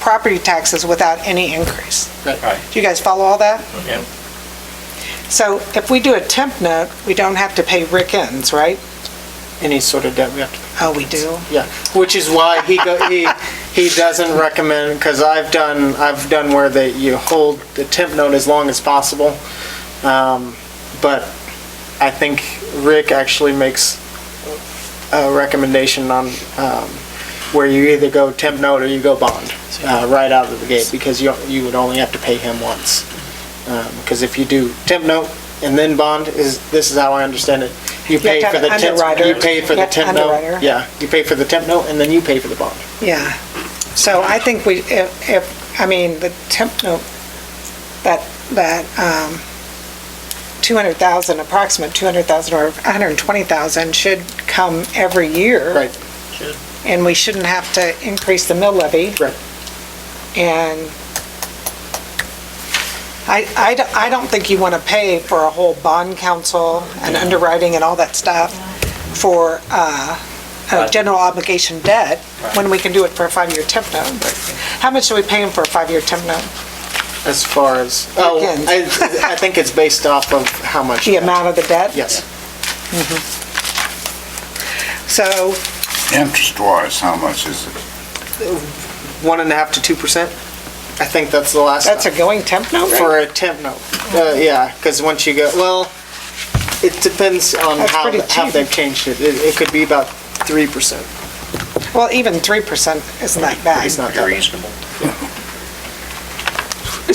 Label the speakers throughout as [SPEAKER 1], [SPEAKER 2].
[SPEAKER 1] property taxes without any increase.
[SPEAKER 2] Right.
[SPEAKER 1] Do you guys follow all that?
[SPEAKER 2] Yeah.
[SPEAKER 1] So if we do a temp note, we don't have to pay Rick ends, right?
[SPEAKER 2] Any sort of debt we have to pay.
[SPEAKER 1] Oh, we do?
[SPEAKER 2] Yeah, which is why he, go- he, he doesn't recommend, because I've done, I've done where they, you hold the temp note as long as possible. Um, But I think Rick actually makes a recommendation on um, where you either go temp note or you go bond, uh, right out of the gate, because you, you would only have to pay him once. Because if you do temp note and then bond, is, this is how I understand it, you
[SPEAKER 1] have
[SPEAKER 2] pay
[SPEAKER 1] to
[SPEAKER 2] for
[SPEAKER 1] have
[SPEAKER 2] the
[SPEAKER 1] an
[SPEAKER 2] temp.
[SPEAKER 1] underwriter.
[SPEAKER 2] You pay for
[SPEAKER 1] You
[SPEAKER 2] the
[SPEAKER 1] have to
[SPEAKER 2] temp note.
[SPEAKER 1] underwriter.
[SPEAKER 2] Yeah, you pay for the temp note and then you pay for the bond.
[SPEAKER 1] Yeah. So I think we, if, if, I mean, the temp note, that, that, um, 200,000, approximate 200,000 or 120,000 should come every year.
[SPEAKER 2] Right.
[SPEAKER 1] And we shouldn't have to increase the mill levy.
[SPEAKER 2] Right.
[SPEAKER 1] And I, I d- I don't think you want to pay for a whole bond council and underwriting and all that stuff for uh, a general obligation debt when we can do it for a five-year temp note. How much are we paying for a five-year temp note?
[SPEAKER 2] As far as, oh,
[SPEAKER 1] Again.
[SPEAKER 2] I, I think it's based off of how much.
[SPEAKER 1] The amount of the debt?
[SPEAKER 2] Yes.
[SPEAKER 1] So,
[SPEAKER 3] Interest-wise, how much is it?
[SPEAKER 2] One and a half to two percent. I think that's the last.
[SPEAKER 1] that's a going temp note rate?
[SPEAKER 2] For a temp note. Uh, yeah, because once you go, well, it depends on
[SPEAKER 1] That's
[SPEAKER 2] how,
[SPEAKER 1] pretty
[SPEAKER 2] the- how
[SPEAKER 1] cheap.
[SPEAKER 2] they've changed it. It, it could be about three percent.
[SPEAKER 1] Well, even 3% isn't that bad.
[SPEAKER 2] It's not that much.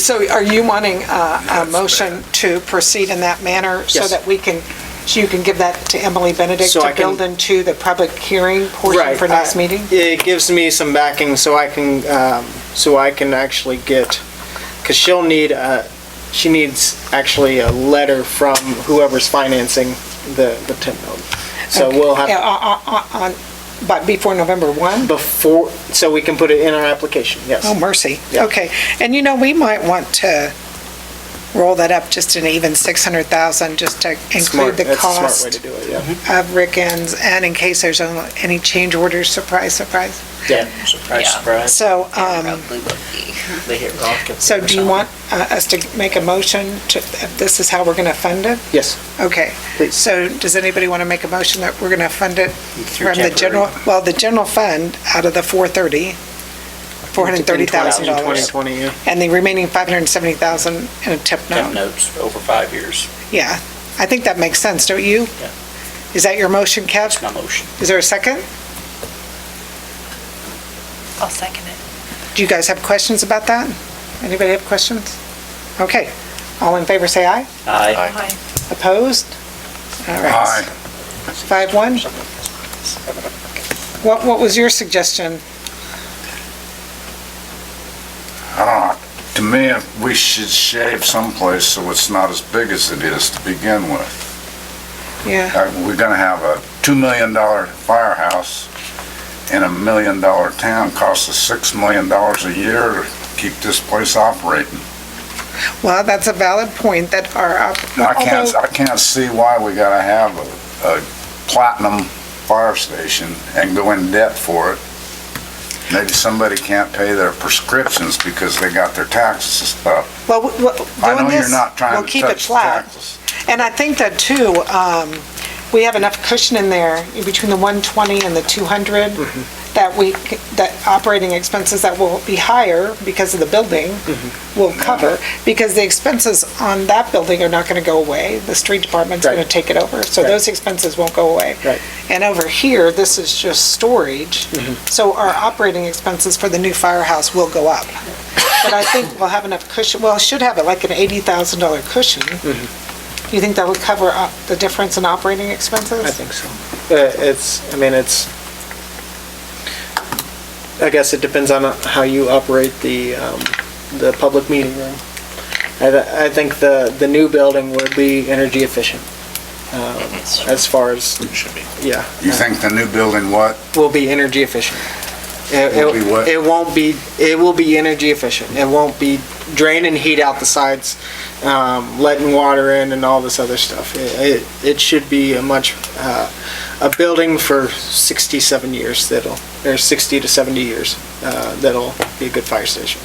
[SPEAKER 1] So are you wanting uh, a motion to proceed in that manner? So
[SPEAKER 2] Yes.
[SPEAKER 1] that we can, so you can give that to Emily Benedict
[SPEAKER 2] So I
[SPEAKER 1] to
[SPEAKER 2] can-
[SPEAKER 1] build into the public hearing portion
[SPEAKER 2] Right, Uh,
[SPEAKER 1] for next
[SPEAKER 2] I-
[SPEAKER 1] meeting?
[SPEAKER 2] It gives me some backing so I can, um, so I can actually get, because she'll need, uh, she needs actually a letter from whoever's financing the, the temp note. So
[SPEAKER 1] Okay.
[SPEAKER 2] we'll have,
[SPEAKER 1] Yeah, on- on- on- But before November 1?
[SPEAKER 2] before, so we can put it in our application, yes.
[SPEAKER 1] Oh, mercy.
[SPEAKER 2] Yeah.
[SPEAKER 1] Okay. And you know, we might want to roll that up just an even 600,000, just to
[SPEAKER 2] Smart-
[SPEAKER 1] include the
[SPEAKER 2] That's a smart way to
[SPEAKER 1] cost
[SPEAKER 2] do it, yeah.
[SPEAKER 1] of Rickens, and in case there's any change orders, surprise, surprise.
[SPEAKER 4] Mm-hmm.
[SPEAKER 2] Yeah.
[SPEAKER 5] Yeah.
[SPEAKER 4] Surprise, surprise.
[SPEAKER 1] So, um,
[SPEAKER 5] Probably would be.
[SPEAKER 4] They hit rock. and-
[SPEAKER 1] So do you want uh, us to make a motion to, if this is how we're going to fund it?
[SPEAKER 2] Yes.
[SPEAKER 1] Okay.
[SPEAKER 2] Please.
[SPEAKER 1] So does anybody want to make a motion that we're going to fund it from the
[SPEAKER 4] temporary.
[SPEAKER 1] general, well, the general fund out of the 430,
[SPEAKER 2] In 2020,
[SPEAKER 1] $430,000?
[SPEAKER 2] yeah.
[SPEAKER 1] And the remaining 570,000 in a tip
[SPEAKER 4] Temp
[SPEAKER 1] note?
[SPEAKER 4] notes over five years,
[SPEAKER 1] Yeah. I think that makes sense, don't you?
[SPEAKER 4] Yeah.
[SPEAKER 1] Is that your motion, Kev?
[SPEAKER 4] that's my motion.
[SPEAKER 1] Is there a second?
[SPEAKER 5] I'll second it.
[SPEAKER 1] Do you guys have questions about that? Anybody have questions? Okay. All in favor, say aye.
[SPEAKER 4] Aye.
[SPEAKER 5] Aye.
[SPEAKER 1] Opposed? All right.
[SPEAKER 3] Aye.
[SPEAKER 1] Five one? What, what was your suggestion?
[SPEAKER 3] I don't know. To me, we should shave someplace so it's not as big as it is to begin with.
[SPEAKER 1] Yeah,
[SPEAKER 3] Uh, We're gonna have a $2 million firehouse and a million dollar town costs us $6 million a year to keep this place operating.
[SPEAKER 1] well, that's a valid point that our, op-
[SPEAKER 3] I can't,
[SPEAKER 1] although,
[SPEAKER 3] I can't see why we gotta have a, a platinum fire station and go in debt for it. Maybe somebody can't pay their prescriptions because they got their taxes up.
[SPEAKER 1] well, w- w-
[SPEAKER 3] I
[SPEAKER 1] doing
[SPEAKER 3] know you're
[SPEAKER 1] this,
[SPEAKER 3] not
[SPEAKER 1] we'll
[SPEAKER 3] trying to
[SPEAKER 1] keep it
[SPEAKER 3] touch
[SPEAKER 1] flat.
[SPEAKER 3] taxes.
[SPEAKER 1] And I think that too, um, we have enough cushion in there, in between the 120 and the 200,
[SPEAKER 2] Mm-hmm.
[SPEAKER 1] that we, c- that operating expenses that will be higher because of the building
[SPEAKER 2] Mm-hmm.
[SPEAKER 1] will cover, because the expenses on that building are not going to go away. The street department's
[SPEAKER 2] Right.
[SPEAKER 1] going to take it over, so
[SPEAKER 2] Right.
[SPEAKER 1] those expenses won't go away.
[SPEAKER 2] Right.
[SPEAKER 1] And over here, this is just storage,
[SPEAKER 2] Mm-hmm.
[SPEAKER 1] so our operating expenses for the new firehouse will go up. But I think we'll have enough cushion, well, should have it like an $80,000 cushion. You think that would cover up the difference in operating expenses?
[SPEAKER 2] Mm-hmm. I think so. Uh, It's, I mean, it's, I guess it depends on how you operate the, um, the public meeting room. I, th- I think the, the new building would be energy efficient, um, as far as,
[SPEAKER 4] Should be.
[SPEAKER 2] yeah,
[SPEAKER 3] You think the new building what?
[SPEAKER 2] will be energy efficient.
[SPEAKER 3] Will be what?
[SPEAKER 2] It won't be, it will be energy efficient. It won't be drain and heat out the sides. um, letting water in and all this other stuff. It, it, it should be a much, uh, a building for 67 years that'll, or 60 to 70 years, uh, that'll be a good fire station.